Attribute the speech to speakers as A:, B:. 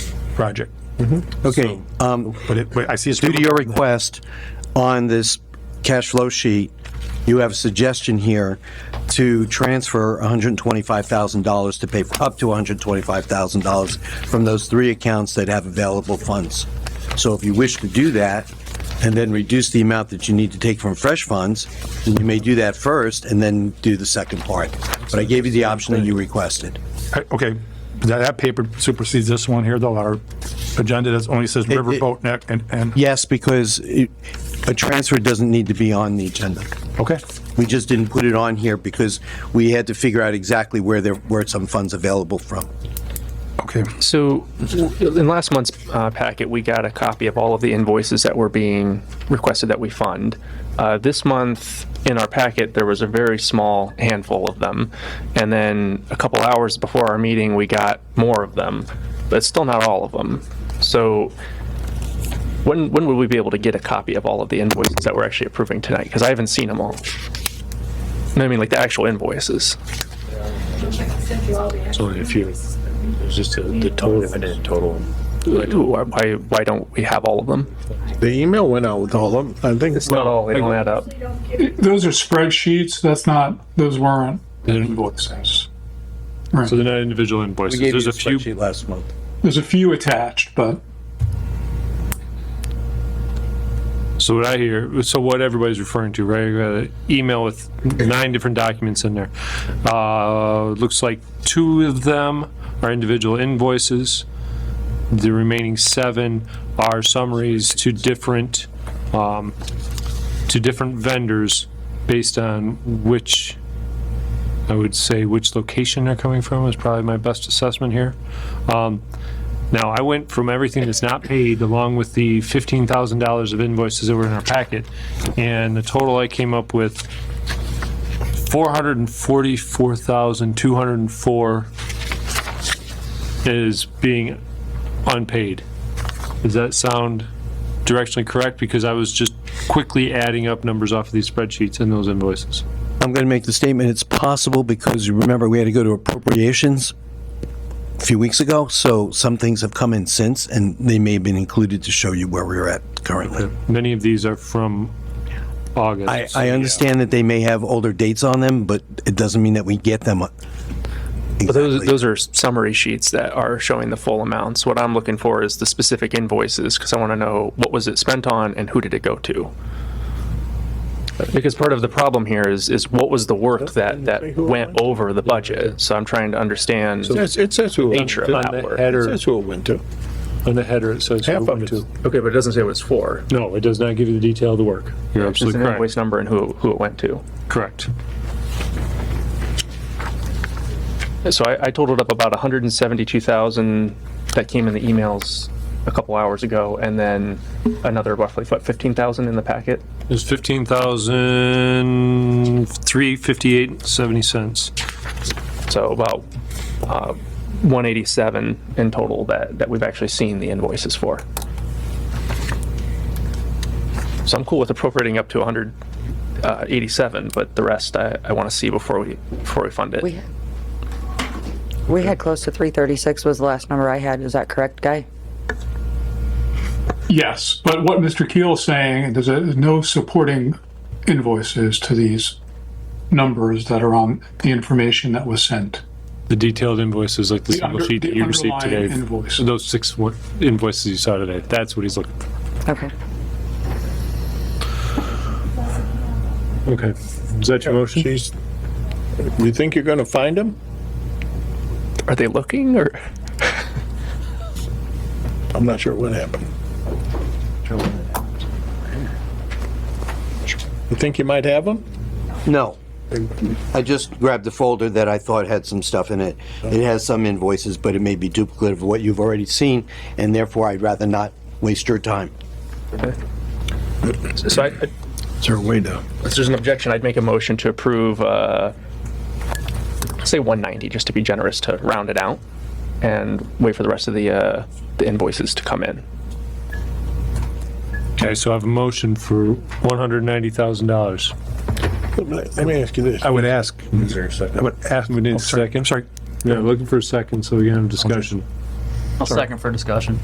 A: project.
B: Okay, um,
A: But it, but I see it's.
B: due to your request on this cash flow sheet, you have a suggestion here to transfer $125,000 to pay for up to $125,000 from those three accounts that have available funds. So if you wish to do that and then reduce the amount that you need to take from fresh funds, then you may do that first and then do the second part. But I gave you the option that you requested.
A: I- Okay, that, that paper supersedes this one here, though. Our agenda that's only says Riverboat Neck and, and,
B: Yes, because it- a transfer doesn't need to be on the agenda.
A: okay.
B: We just didn't put it on here because we had to figure out exactly where there were some funds available from.
A: Okay,
C: So w- in last month's uh, packet, we got a copy of all of the invoices that were being requested that we fund. Uh, This month, in our packet, there was a very small handful of them. And then a couple hours before our meeting, we got more of them, but still not all of them. So when, when would we be able to get a copy of all of the invoices that we're actually approving tonight? Because I haven't seen them all. No, I mean, like the actual invoices.
D: So if you, it's just the the total, I didn't total them.
C: Ooh, Why, why don't we have all of them?
E: The email went out with all of them, I think.
C: It's not all, they don't add up.
F: Those are spreadsheets, that's not, those weren't invoices.
D: So they're not individual
B: We
D: invoices,
B: gave you
D: there's
B: the
D: a few,
B: spreadsheet last month.
F: There's a few attached, but
D: so what I hear, so what everybody's referring to, right, you got an email with nine different documents in there. Uh, looks like two of them are individual invoices. The remaining seven are summaries to different, um, to different vendors based on which, I would say which location they're coming from is probably my best assessment here. Um, Now, I went from everything that's not paid along with the fifteen thousand dollars of invoices that were in our packet, and the total I came up with four hundred and forty-four thousand two hundred and four is being unpaid. Does that sound directionally correct? Because I was just quickly adding up numbers off of these spreadsheets and those invoices.
B: I'm going to make the statement, it's possible because you remember we had to go to appropriations a few weeks ago, so some things have come in since and they may have been included to show you where we're at currently.
D: Many of these are from August.
B: I, I understand that they may have older dates on them, but it doesn't mean that we get them.
C: But those, those are summary sheets that are showing the full amounts. What I'm looking for is the specific invoices, because I want to know what was it spent on and who did it go to? Because part of the problem here is, is what was the work that, that went over the budget? So I'm trying to understand
E: Yes, it says who, it
C: nature of
D: On
C: that
D: the
C: work.
D: header,
E: says who it went to.
D: on the header, it says.
E: Half of
D: who
E: it's
D: to.
C: Okay, but it doesn't say what it's for.
D: No, it does not give you the detail of the work. You're
C: Just
D: absolutely
C: an
D: correct.
C: invoice number and who, who it went to.
D: Correct.
C: So I, I totaled up about 172,000 that came in the emails a couple hours ago, and then another roughly, what, 15,000 in the packet?
D: It's fifteen thousand three fifty-eight seventy cents.
C: So about uh, 187 in total that, that we've actually seen the invoices for. So I'm cool with appropriating up to 187, but the rest I, I want to see before we, before we fund it.
G: We, we had close to 336 was the last number I had. Is that correct, Guy?
F: yes, but what Mr. Keel is saying, there's a- there's no supporting invoices to these numbers that are on the information that was sent.
D: The detailed invoices like the
F: The
D: single
F: under-
D: sheet that
F: the
D: you received
F: underlying
D: today.
F: invoice.
D: So Those six wa- invoices you saw today, that's what he's looking for.
G: Okay.
D: Okay. Is that your motion?
E: She's, you think you're gonna find him?
C: Are they looking or?
E: I'm not sure what happened. You think you might have him?
B: No. I just grabbed the folder that I thought had some stuff in it. It has some invoices, but it may be duplicative of what you've already seen, and therefore I'd rather not waste your time.
C: So I,
E: Is there a way to?
C: If there's an objection, I'd make a motion to approve, uh, say 190, just to be generous, to round it out, and wait for the rest of the uh, the invoices to come in.
D: Okay, so I have a motion for one hundred ninety thousand dollars.
E: Let me ask you this.
A: I would ask, I would ask.
D: We need
A: oh,
D: a
A: sorry,
D: second.
A: I'm sorry,
D: Yeah, looking for a second so we can have a discussion.
H: I'll second for discussion.